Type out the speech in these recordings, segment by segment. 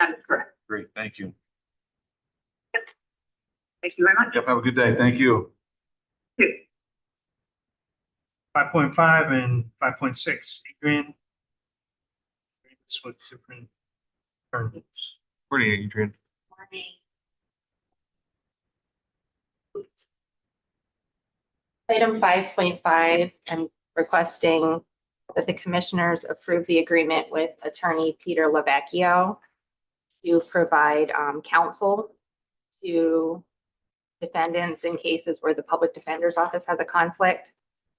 That is correct. Great, thank you. Thank you very much. Yep, have a good day. Thank you. Two. Five point five and five point six, Adrian. Agreements with different firms. Morning, Adrian. morning. Item five point five, I'm requesting that the commissioners approve the agreement with attorney Peter Lavecchio to provide um, counsel to defendants in cases where the public defender's office has a conflict.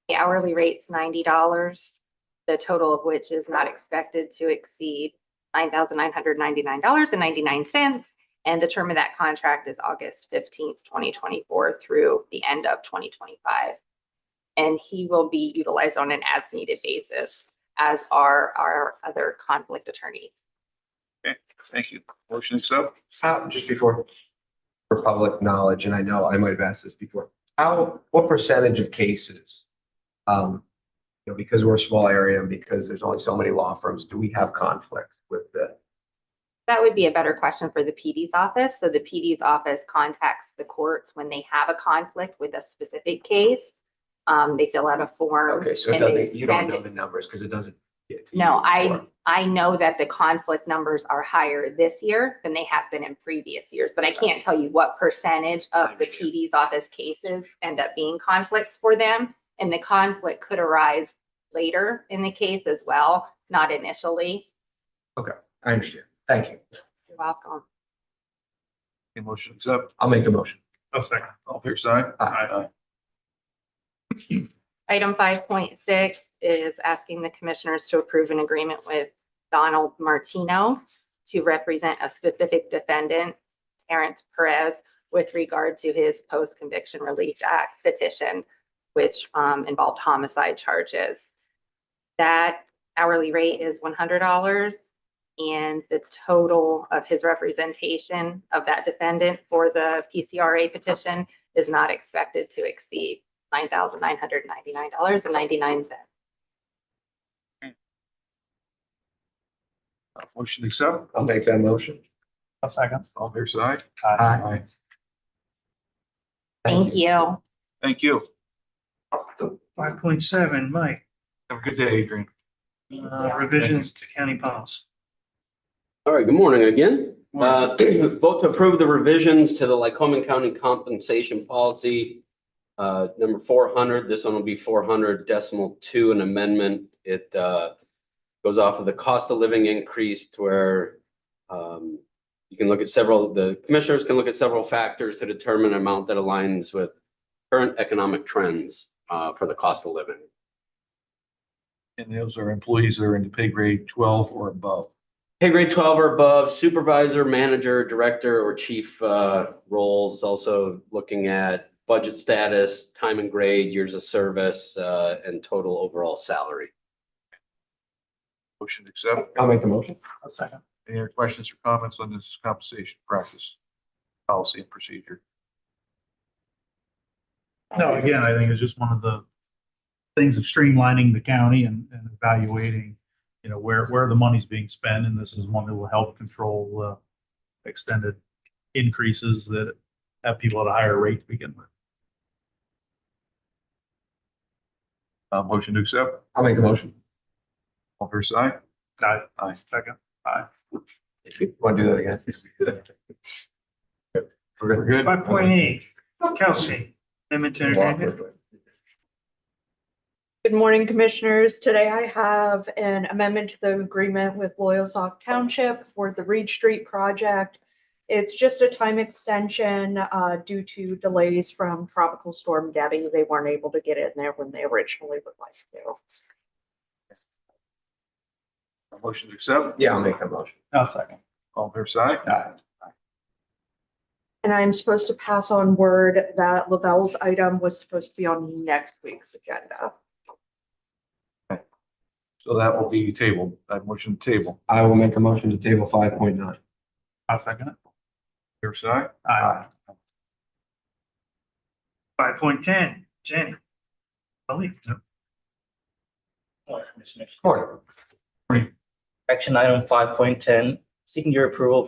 The hourly rate's ninety dollars, the total of which is not expected to exceed nine thousand nine hundred ninety-nine dollars and ninety-nine cents. And the term of that contract is August fifteenth, twenty twenty-four through the end of twenty twenty-five. And he will be utilized on an as-needed basis, as are our other conflict attorneys. Thank you. Motion accept. How, just before, for public knowledge, and I know I might have asked this before, how, what percentage of cases? Um, you know, because we're a small area and because there's only so many law firms, do we have conflict with the? That would be a better question for the PD's office. So the PD's office contacts the courts when they have a conflict with a specific case. Um, they fill out a form. Okay, so it and they doesn't, you don't send know it- the numbers because it doesn't. get to you No, I, before. I know that the conflict numbers are higher this year than they have been in previous years, but I can't tell you what percentage of the Understand. PD's office cases end up being conflicts for them. And the conflict could arise later in the case as well, not initially. I understand. Thank you. You're welcome. Okay, Motion accept. I'll make the motion. I'll second. All fair side. Aye. Item five point six is asking the commissioners to approve an agreement with Donald Martino to represent a specific defendant, Terrence Perez, with regard to his post-conviction relief act petition, which um, involved homicide charges. That hourly rate is one hundred dollars, and the total of his representation of that defendant for the PCRA petition is not expected to exceed nine thousand nine hundred ninety-nine dollars and ninety-nine cents. Uh, Motion accept. I'll make that motion. I'll second. All fair side. Aye. Aye. Thank you. Thank you. Five point seven, Mike, Have a good day, Adrian. uh, revisions to county policy. All right, good morning again. Morning. Uh, Vote to approve the revisions to the Lycoming County Compensation Policy, uh, number 400. This one will be 400 decimal two, an amendment. It uh, goes off of the cost of living increase to where um, you can look at several, the commissioners can look at several factors to determine an amount that aligns with current economic trends uh, for the cost of living. And those are employees that are in the pay grade twelve or above. Pay grade twelve or above supervisor, manager, director, or chief uh, roles, also looking at budget status, time and grade, years of service, uh, and total overall salary. Motion accept. I'll make the motion. I'll second. Any other questions or comments on this compensation practice, policy and procedure? No, again, I think it's just one of the things of streamlining the county and, and evaluating, you know, where, where the money's being spent, and this is one that will help control, uh, extended increases that have people at a higher rate to begin with. Uh, motion to accept. I'll make the motion. All fair side. Aye. Aye. Second. Want to do that again? We're good. Five point eight, Kelsey, Edmonton Entertainment. Good morning, Commissioners. Today I have an amendment to the agreement with Loyalsock Township for the Reed Street project. It's just a time extension uh, due to delays from Tropical Storm Debbie. They weren't able to get in there when they originally would like to. Motion to accept. Yeah, I'll make that motion. I'll second. All fair side. Aye. And I'm supposed to pass on word that Lavelle's item was supposed to be on next week's agenda. So that will be tabled. That motion to table. I will make a motion to table five point nine. I'll second it. Fair side. Aye. Five point ten, Jenny. Malik, no. Morning, Commissioners. Correct. Action item five point ten, seeking your approval